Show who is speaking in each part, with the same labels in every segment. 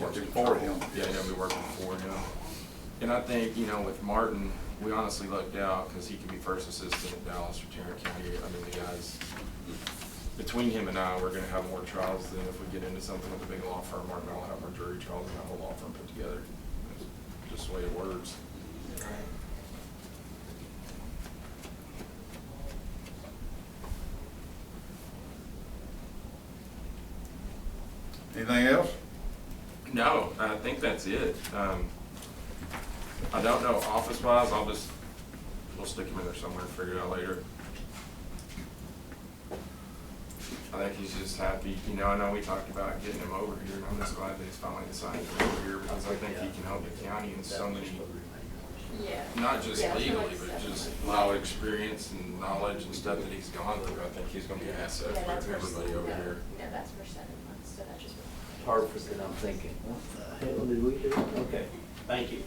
Speaker 1: Working for him.
Speaker 2: Yeah, they'll be working for him. And I think, you know, with Martin, we honestly lucked out because he could be first assistant at Dallas or Tarrant County. I mean, the guys, between him and I, we're gonna have more trials than if we get into something with a big law firm. Martin, I'll have our jury trials and have a law firm put together. It's Just the way it works.
Speaker 1: Anything else?
Speaker 2: No, I think that's it. Um, I don't know, office wise, I'll just, we'll stick him in there somewhere, and figure it out later. I think he's just happy, you know, I know we talked about getting him over here, and I'm just glad that he's finally decided to come over here, because I think he can help the county in so many,
Speaker 3: Yeah.
Speaker 2: not just
Speaker 3: Yeah,
Speaker 2: legally,
Speaker 3: someone's
Speaker 2: but just a
Speaker 3: definitely-
Speaker 2: lot of experience and knowledge and stuff that he's gone through. I think he's gonna be an asset
Speaker 3: Yeah, that's
Speaker 2: to
Speaker 3: for-
Speaker 2: everybody over
Speaker 3: no,
Speaker 2: here.
Speaker 3: No, that's for seven months, so that just.
Speaker 4: Hartford, and I'm thinking, what the hell did we do? Okay, thank you.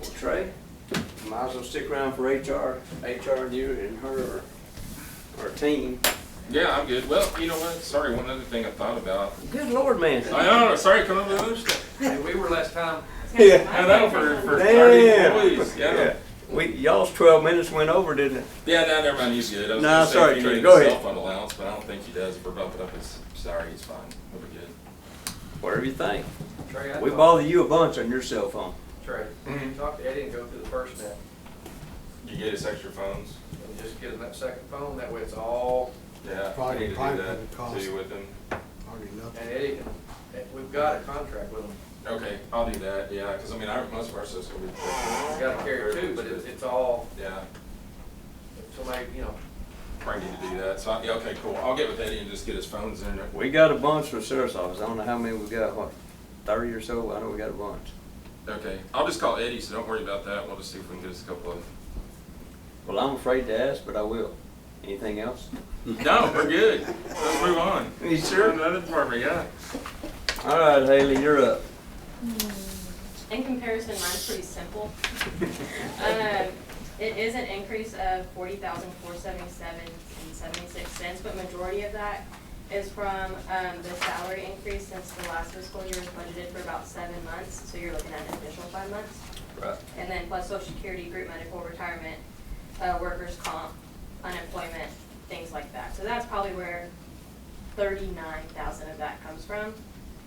Speaker 4: Well, Trey, might as well stick around for HR, HR and you and her, or, or team.
Speaker 2: Yeah, I'm good. Well, you know what? Sorry, one other thing I thought about.
Speaker 4: Good lord, man.
Speaker 2: I know, sorry, come up with other stuff.
Speaker 4: Hey, we were last time.
Speaker 3: Yeah.
Speaker 2: I know, for, for thirty
Speaker 4: Damn.
Speaker 2: employees, yeah.
Speaker 4: We, y'all's twelve minutes went over, didn't it?
Speaker 2: Yeah, no, never mind, he's good. I was
Speaker 4: No,
Speaker 2: gonna say
Speaker 4: sorry,
Speaker 2: if he
Speaker 4: Trey,
Speaker 2: needed
Speaker 4: go
Speaker 2: a
Speaker 4: ahead.
Speaker 2: Cell phone allowance, but I don't think he does. We're bumping up his salary, he's fine. We'll be good.
Speaker 4: Whatever you think.
Speaker 5: Trey, I
Speaker 4: We
Speaker 5: talked-
Speaker 4: bother you Mm-hmm. a bunch on your cell phone.
Speaker 5: Trey,
Speaker 2: Mhm.
Speaker 5: talk to Eddie and go through the first net,
Speaker 2: You get us extra phones?
Speaker 5: and just get him that second phone, that way it's all,
Speaker 2: Yeah.
Speaker 6: Probably-
Speaker 2: I need to do
Speaker 6: probably
Speaker 2: that
Speaker 6: would cost-
Speaker 2: too with him.
Speaker 6: Hardly
Speaker 5: and
Speaker 6: nothing.
Speaker 5: Eddie can, and we've got a contract with him,
Speaker 2: Okay, I'll do that, yeah, because I mean, I, most of our stuff's gonna be.
Speaker 5: we gotta carry two, but it's, it's all,
Speaker 2: Yeah,
Speaker 5: if somebody, you know,
Speaker 2: probably need to do that. So, I- yeah, okay, cool. I'll get with Eddie and just get his phones in.
Speaker 4: We got a bunch from sheriff's office. I don't know how many we got, what, thirty or so? I know we got a bunch.
Speaker 2: Okay, I'll just call Eddie, so don't worry about that. We'll just see if we can get us a couple of.
Speaker 4: Well, I'm afraid to ask, but I will. Anything else?
Speaker 2: No, we're good. Let's move on.
Speaker 4: You sure?
Speaker 2: Another department, yeah.
Speaker 4: All right, Haley, you're up.
Speaker 3: In comparison, mine's pretty simple. Um, It is an increase of forty thousand four seventy-seven and seventy-six cents, but majority of that is from um, the salary increase since the last fiscal year was budgeted for about seven months, so you're looking at an additional five months.
Speaker 4: Right.
Speaker 3: And then plus social security, group medical, retirement, uh, workers' comp, unemployment, things like that. So that's probably where thirty-nine thousand of that comes from.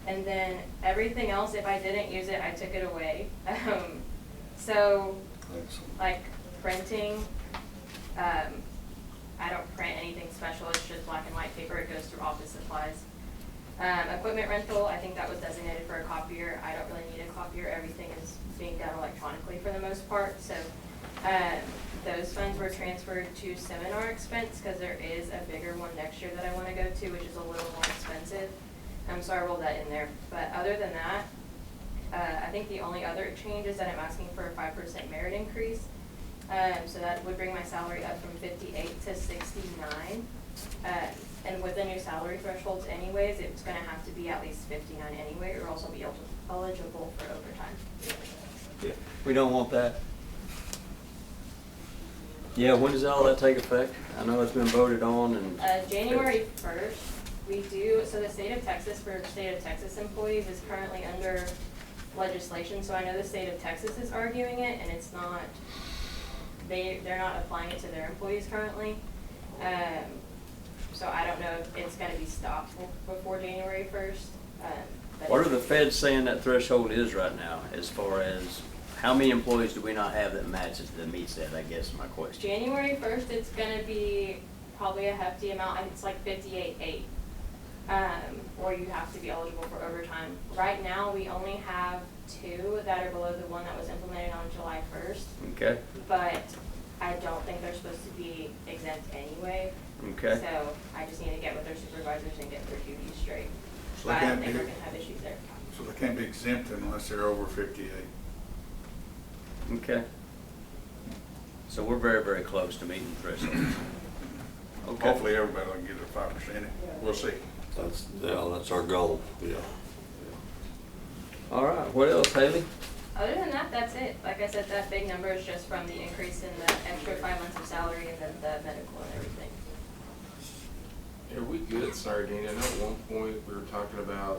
Speaker 3: And then everything else, if I didn't use it, I took it away. Um, so like printing, um, I don't print anything special, it's just black and white paper, it goes through office supplies. Um, equipment rental, I think that was designated for a copier, I don't really need a copier, everything is being done electronically for the most part, so, um, those funds were transferred to seminar expense, cause there is a bigger one next year that I wanna go to, which is a little more expensive. Um, so I rolled that in there, but other than that, uh, I think the only other change is that I'm asking for a five percent merit increase. Um, so that would bring my salary up from fifty-eight to sixty-nine. Uh, and with the new salary thresholds anyways, it's gonna have to be at least fifty-nine anyway, or else I'll be el- eligible for overtime.
Speaker 4: Yeah, we don't want that. Yeah, when does all that take effect? I know it's been voted on and.
Speaker 3: Uh, January first, we do, so the state of Texas, for state of Texas employees is currently under legislation, so I know the state of Texas is arguing it, and it's not, they, they're not applying it to their employees currently. Um, so I don't know if it's gonna be stopped bef- before January first, um, but.
Speaker 4: What are the feds saying that threshold is right now as far as how many employees do we not have that matches, that meets that, I guess is my question.
Speaker 3: January first, it's gonna be probably a hefty amount, and it's like fifty-eight eight. Um, or you have to be eligible for overtime. Right now, we only have two that are below the one that was implemented on July first,
Speaker 4: Okay,
Speaker 3: but I don't think they're supposed to be exempt anyway.
Speaker 4: okay.
Speaker 3: So I just need to get with their supervisors and get their duties straight.
Speaker 1: So
Speaker 3: But
Speaker 1: they
Speaker 3: I don't
Speaker 1: can't
Speaker 3: think we're
Speaker 1: be-
Speaker 3: gonna have issues there.
Speaker 1: So they can't be exempted unless they're over fifty-eight.
Speaker 4: Okay. So we're very, very close to meeting the threshold. Okay.
Speaker 1: Hopefully, everybody will get their five percent. We'll see.
Speaker 7: That's, yeah, that's our goal, yeah.
Speaker 4: All right, what else, Haley?
Speaker 3: Other than that, that's it. Like I said, that big number is just from the increase in the extra five months of salary and then the medical and everything.
Speaker 2: Are we good? Sorry, Danny. I know at one point we were talking about